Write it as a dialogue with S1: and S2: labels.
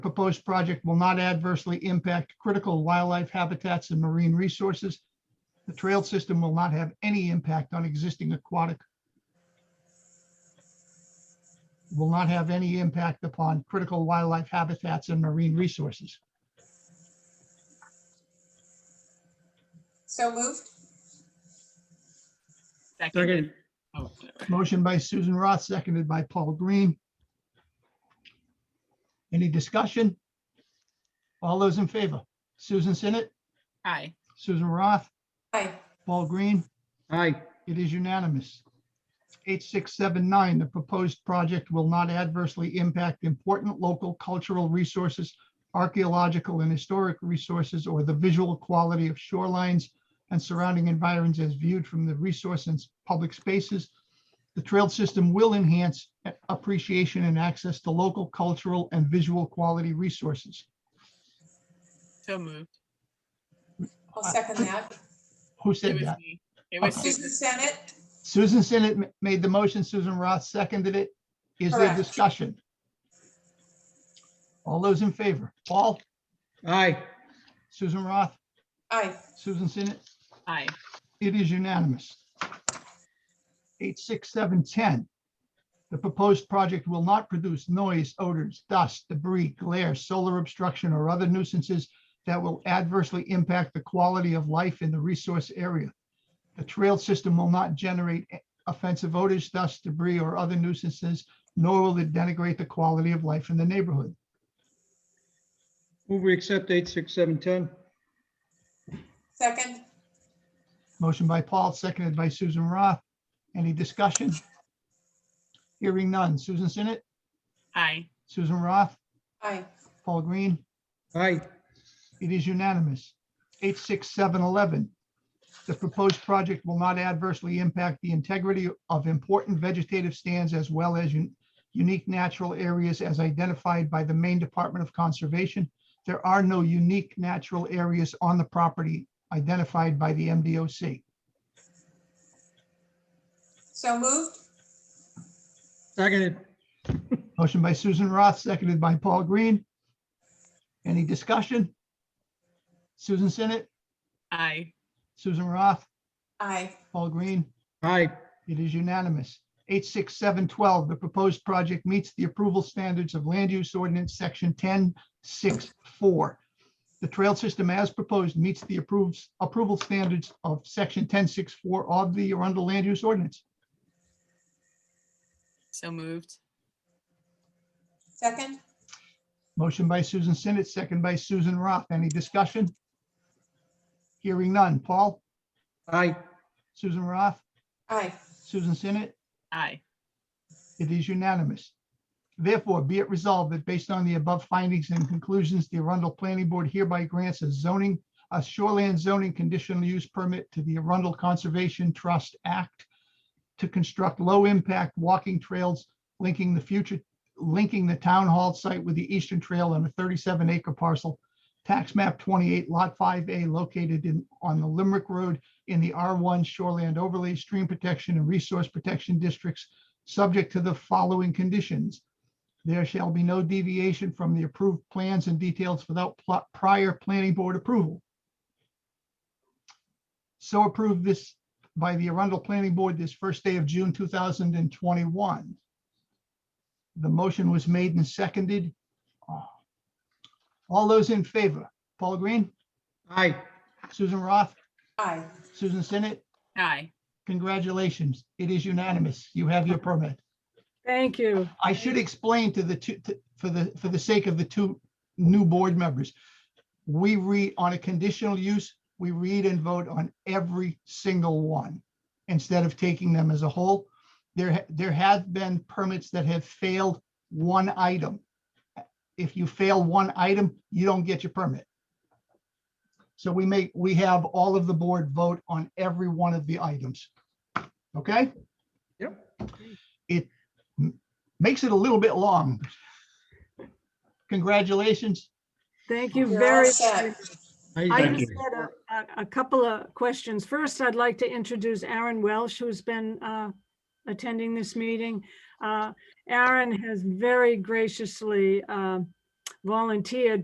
S1: proposed project will not adversely impact critical wildlife habitats and marine resources. The trail system will not have any impact on existing aquatic will not have any impact upon critical wildlife habitats and marine resources.
S2: So moved.
S3: Second.
S4: Oh,
S1: Motion by Susan Roth, seconded by Paul Green. Any discussion? All those in favor? Susan Sinnet,
S3: Aye.
S1: Susan Roth,
S2: Aye.
S1: Paul Green,
S4: Aye,
S1: it is unanimous. 8679, the proposed project will not adversely impact important local cultural resources, archaeological and historic resources, or the visual quality of shorelines and surrounding environs as viewed from the resource and s- public spaces. The trail system will enhance a- appreciation and access to local cultural and visual quality resources.
S3: So moved.
S2: I'll second that.
S1: Who
S3: It
S1: said
S3: was
S1: that?
S3: me. It was
S2: Susan
S3: Susan.
S2: Senate?
S1: Susan Sinnet ma- made the motion, Susan Roth seconded it. Is there
S2: Correct.
S1: discussion? All those in favor, Paul,
S4: aye,
S1: Susan Roth,
S2: Aye.
S1: Susan Sinnet,
S3: Aye.
S1: it is unanimous. 86710. The proposed project will not produce noise, odors, dust, debris, glare, solar obstruction, or other nuisances that will adversely impact the quality of life in the resource area. The trail system will not generate offensive odors, dust, debris, or other nuisances, nor will it denigrate the quality of life in the neighborhood.
S4: move we accept eight, six, seven, ten?
S2: Second.
S1: Motion by Paul, seconded by Susan Roth. Any discussion? Hearing none. Susan Sinnet?
S3: Aye.
S1: Susan Roth,
S2: Aye.
S1: Paul Green,
S4: Aye,
S1: it is unanimous. 86711, the proposed project will not adversely impact the integrity of important vegetative stands as well as un- unique natural areas as identified by the Maine Department of Conservation. There are no unique natural areas on the property identified by the MDOC.
S2: So moved.
S4: seconded,
S1: Motion by Susan Roth, seconded by Paul Green. Any discussion? Susan Sinnet,
S3: Aye.
S1: Susan Roth,
S2: Aye.
S1: Paul Green,
S4: aye,
S1: It is unanimous. 86712, the proposed project meets the approval standards of Land Use Ordinance Section 1064. The trail system as proposed meets the approves, approval standards of Section 1064 of the Arundel Land Use Ordinance.
S3: So moved.
S2: Second.
S1: Motion by Susan Sinnet, second by Susan Roth. Any discussion? Hearing none. Paul,
S4: aye,
S1: Susan Roth,
S2: Aye.
S1: Susan Sinnet,
S3: Aye.
S1: It is unanimous. Therefore, be it resolved that based on the above findings and conclusions, the Arundel Planning Board hereby grants a zoning, a shoreland zoning conditional use permit to the Arundel Conservation Trust Act to construct low-impact walking trails linking the future, linking the town hall site with the eastern trail on a 37-acre parcel, tax map 28, lot 5A, located in, on the Limerick Road in the R1 Shoreland Overlay Stream Protection and Resource Protection Districts subject to the following conditions. There shall be no deviation from the approved plans and details without pl- prior planning board approval. So approved this by the Arundel Planning Board this first day of June 2021. The motion was made and seconded. All those in favor, Paul Green,
S4: aye,
S1: Susan Roth,
S2: Aye.
S1: Susan Sinnet,
S3: Aye.
S1: congratulations. It is unanimous. You have your permit.
S5: Thank you.
S1: I should explain to the two, to- for the, for the sake of the two new board members. We read on a conditional use, we read and vote on every single one instead of taking them as a whole. There, ha- there have been permits that have failed one item. If you fail one item, you don't get your permit. So we make, we have all of the board vote on every one of the items. Okay?
S4: Yep.
S1: It m- makes it a little bit long. Congratulations.
S5: Thank you
S2: You're all
S5: very
S2: set.
S5: much. I
S4: aye,
S5: just had a, a- a couple of questions. First, I'd like to introduce Aaron Welsh, who's been uh, attending this meeting. Uh, Aaron has very graciously um, volunteered